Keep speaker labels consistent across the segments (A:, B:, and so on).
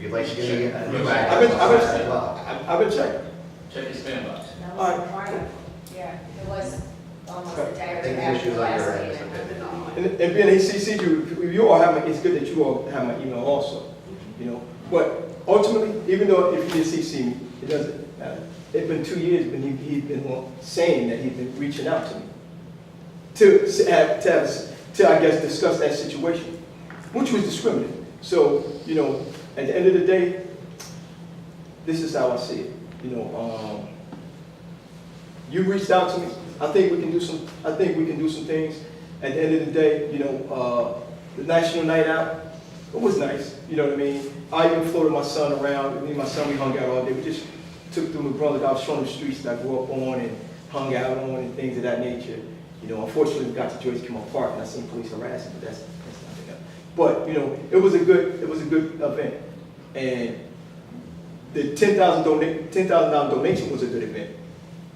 A: you'd like to give me a new address.
B: I've been, I've
A: as
B: been,
A: well.
B: I've I've been checking.
C: Check your spam box.
D: That
B: All
D: was a prior, yeah, it was almost a
A: I
D: day
A: think the
D: after
A: issues
D: the
A: on
D: last
A: your end is a
D: meeting.
A: bit anomalous.
B: And, and being ACC, you, you all have my, it's good that you all have my email also, you know. But ultimately, even though if you did CC me, it doesn't matter. It's been two years, but he, he's been on- saying that he's been reaching out to me. To, s- have- to, have- to, I guess, discuss that situation, which was discriminating. So, you know, at the end of the day, this is how I see it, you know, um, you reached out to me. I think we can do some, I think we can do some things. At the end of the day, you know, uh, the National Night Out, it was nice, you know what I mean? I even floated my son around, me and my son, we hung out all day. We just took through McBrother, I was showing the streets that I grew up on and hung out on and things of that nature. You know, unfortunately, we got to Joyce Kimmel Park and I seen police harassing, but that's, that's nothing else. But, you know, it was a good, it was a good event. And the ten thousand donate, ten thousand dollar donation was a good event.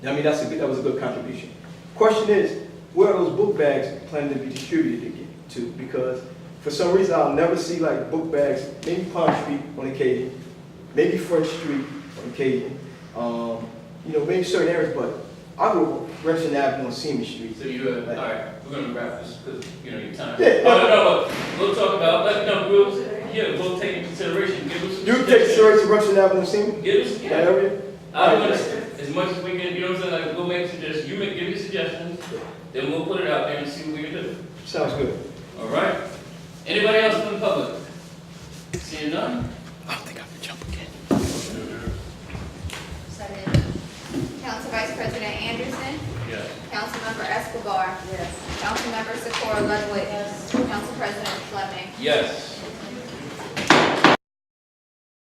B: I mean, that's a good, that was a good contribution. Question is, where are those book bags planning to be distributed again to? Because for some reason, I'll never see like book bags, maybe Palm Street on occasion, maybe French Street on occasion, um, you know, maybe certain areas, but I grew up Gresham Avenue and Seaman Street.
C: So you, uh, all right, we're gonna wrap this, because, you know, your time.
B: Yeah.
C: No, no, no, we'll talk about, let, no, we'll, yeah, we'll take into consideration, give us.
B: You take certain Gresham Avenue and Seaman,
C: Give us,
B: that
C: yeah,
B: area?
C: I'm gonna, as much as we can, you know what I'm saying, like, we'll make suggestions, you make, give me suggestions, then we'll put it out there and see what we can do,
B: Sounds good.
C: all right? Anybody else from the public? Seeing none?
E: Seven. Council Vice President Anderson.
C: Yeah.
E: Councilmember Escobar.
D: Yes.
E: Councilmember Socorro Ludwig. Council President Fleming.
C: Yes.